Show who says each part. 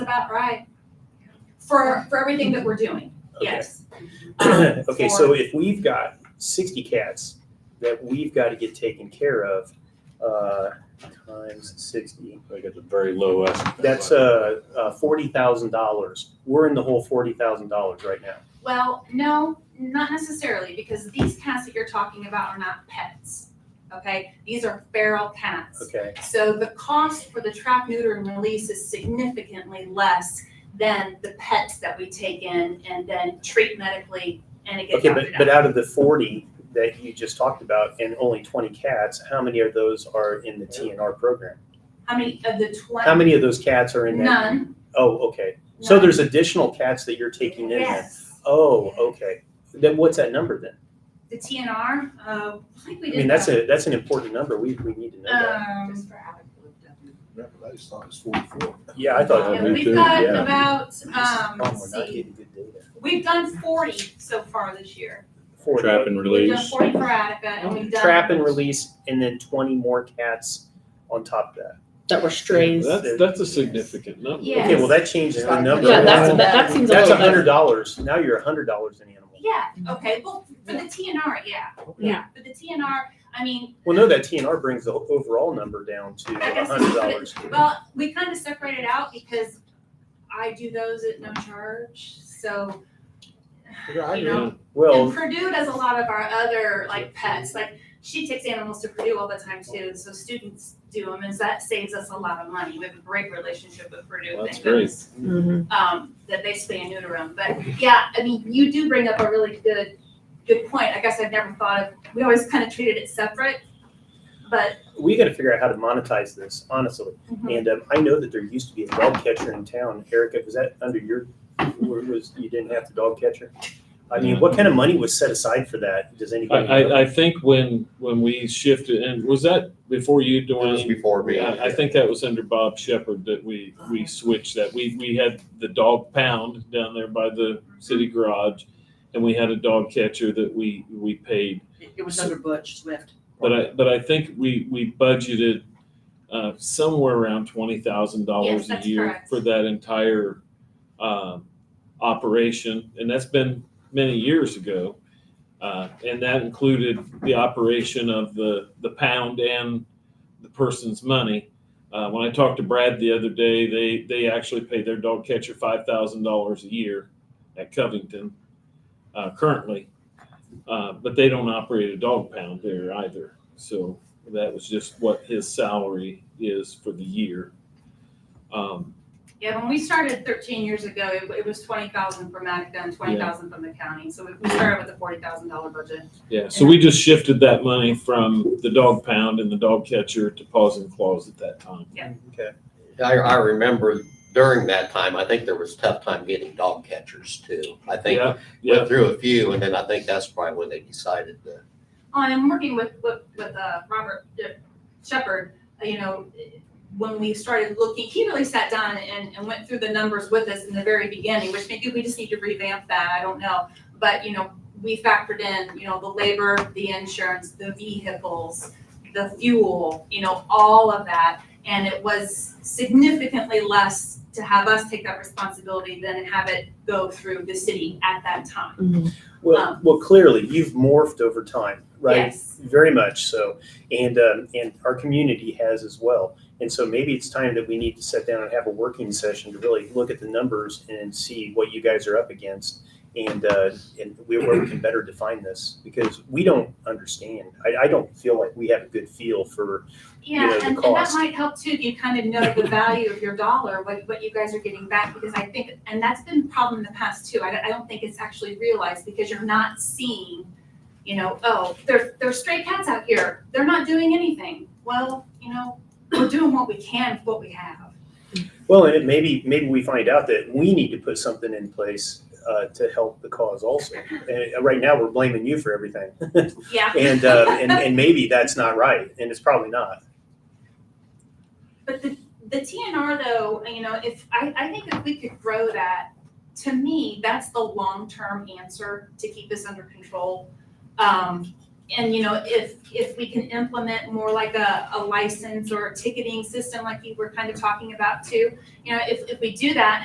Speaker 1: about right. For, for everything that we're doing, yes. Um,
Speaker 2: Okay, so if we've got sixty cats that we've got to get taken care of, uh, times sixty,
Speaker 3: Like at the very low estimate.
Speaker 2: that's, uh, uh, forty thousand dollars. We're in the whole forty thousand dollars right now.
Speaker 1: Well, no, not necessarily, because these cats that you're talking about are not pets, okay? These are feral cats.
Speaker 2: Okay,
Speaker 1: So the cost for the trap, neuter, and release is significantly less than the pets that we take in and then treat medically and it gets
Speaker 2: okay, but,
Speaker 1: adopted
Speaker 2: but
Speaker 1: out.
Speaker 2: out of the forty that you just talked about and only twenty cats, how many of those are in the TNR program?
Speaker 1: How many of the twenty?
Speaker 2: How many of those cats are in that?
Speaker 1: None.
Speaker 2: Oh, okay. So
Speaker 1: none.
Speaker 2: there's additional cats that you're taking in then?
Speaker 1: Yes,
Speaker 2: Oh, okay. Then what's that number then?
Speaker 1: the TNR, uh, I think we
Speaker 2: I
Speaker 1: did.
Speaker 2: mean, that's a, that's an important number. We, we need to know that.
Speaker 1: Um,
Speaker 4: Just for out
Speaker 5: Yeah, but I just thought it was forty-four.
Speaker 2: Yeah, I thought.
Speaker 1: yeah,
Speaker 3: me
Speaker 1: we've
Speaker 3: too,
Speaker 1: got
Speaker 3: yeah.
Speaker 1: about, um,
Speaker 2: Oh,
Speaker 1: let's
Speaker 2: we're not
Speaker 1: see,
Speaker 2: getting good data.
Speaker 1: we've done forty so far this year.
Speaker 2: Forty.
Speaker 3: Trap and
Speaker 1: We've done
Speaker 3: release.
Speaker 1: forty for Attica and we've done.
Speaker 2: Trap and release, and then twenty more cats on top of that.
Speaker 6: that were strays.
Speaker 3: That's, that's a significant number.
Speaker 1: Yeah.
Speaker 2: Okay, well, that changes the number.
Speaker 6: Yeah, that's,
Speaker 5: Wow.
Speaker 6: that, that seems a
Speaker 2: That's
Speaker 6: little
Speaker 2: a
Speaker 6: bit.
Speaker 2: hundred dollars. Now you're a hundred dollars an animal.
Speaker 1: Yeah, okay, well, for the TNR, yeah, yeah, for the TNR, I mean,
Speaker 2: Well, no, that TNR brings the overall number down to
Speaker 1: I
Speaker 2: a
Speaker 1: guess
Speaker 2: hundred
Speaker 1: it's-
Speaker 2: dollars.
Speaker 1: Well, we kind of separate it out because I do those at no charge, so. You know, and
Speaker 2: Well,
Speaker 1: Purdue does a lot of our other like pets, like she takes animals to Purdue all the time too, so students do them, and so that saves us a lot of money. We have a great relationship with Purdue.
Speaker 3: That's
Speaker 1: thank
Speaker 3: great.
Speaker 1: goodness, Um, that they spay and neuter them, but yeah, I mean, you do bring up a really good, good point. I guess I've never thought of, we always kind of treated it separate, but.
Speaker 2: we gotta figure out how to monetize this, honestly.
Speaker 3: Mm-hmm.
Speaker 2: And, um, I know that there used to be a dog catcher in town. Erica, was that under your, where was, you didn't have the dog catcher? I mean, what kind of money was set aside for that? Does
Speaker 3: I,
Speaker 2: anybody? know?
Speaker 3: I, I think when, when we shifted, and was that before you,
Speaker 5: was
Speaker 3: Dwayne?
Speaker 5: before me.
Speaker 3: I, I think that was under Bob Shepherd that we, we switched that. We, we had the dog pound down there by the city garage. And we had a dog catcher that we, we paid
Speaker 4: It was under Butch Swift.
Speaker 3: But I, but I think we, we budgeted, uh, somewhere around twenty thousand
Speaker 1: Yes,
Speaker 3: dollars a
Speaker 1: that's
Speaker 3: year
Speaker 1: correct.
Speaker 3: for that entire, um, operation, and that's been many years ago. Uh, and that included the operation of the, the pound and the person's money. Uh, when I talked to Brad the other day, they, they actually pay their dog catcher five thousand dollars a year at Covington, uh, currently. Uh, but they don't operate a dog pound there either. So that was just what his salary is for the year. Um,
Speaker 1: Yeah, when we started thirteen years ago, it, it was twenty thousand from Attica and twenty thousand from the county, so we- we started with a forty thousand dollar budget.
Speaker 3: yeah, so we just shifted that money from the dog pound and the dog catcher to paws and claws at that time.
Speaker 2: Okay.
Speaker 7: I, I remember during that time, I think there was tough time getting dog catchers too. I think
Speaker 3: Yeah, yeah,
Speaker 7: went through a few and then I think that's probably when they decided to
Speaker 1: Oh, and I'm working with, with, with, uh, Robert uh, Shepherd, uh, you know, when we started looking, he really sat down and, and went through the numbers with us in the very beginning, which maybe we just need to revamp that, I don't know. But, you know, we factored in, you know, the labor, the insurance, the vehicles, the fuel, you know, all of that. And it was significantly less to have us take that responsibility than have it go through the city at that time.
Speaker 2: Well,
Speaker 1: Um,
Speaker 2: well, clearly you've morphed over time, right?
Speaker 1: Yes.
Speaker 2: Very much so, and um, and our community has as well. And so maybe it's time that we need to sit down and have a working session to really look at the numbers and see what you guys are up against, and uh, and we- where we can better define this because we don't understand. I, I don't feel like we have a good feel for. you know,
Speaker 1: Yeah,
Speaker 2: the
Speaker 1: and, and that
Speaker 2: cost.
Speaker 1: might help too, if you kind of know the value of your dollar, what, what you guys are getting back, because I think, and that's been a problem in the past too. I, don't- I don't think it's actually realized because you're not seeing, you know, oh, there, there's stray cats out here, they're not doing anything. Well, you know, we're doing what we can with what we have.
Speaker 2: Well, and it maybe maybe we find out that we need to put something in place uh, to help the cause also. And uh, right now we're blaming you for everything.
Speaker 1: Yeah.
Speaker 2: and, uh, and and maybe that's not right, and it's probably not.
Speaker 1: But the, the TNR though, you know, if, I, I think if we could grow that, to me, that's the long-term answer to keep this under control. Um, and you know, if, if we can implement more like a, a license or a ticketing system like you were kind of talking about too, you know, if, if we do that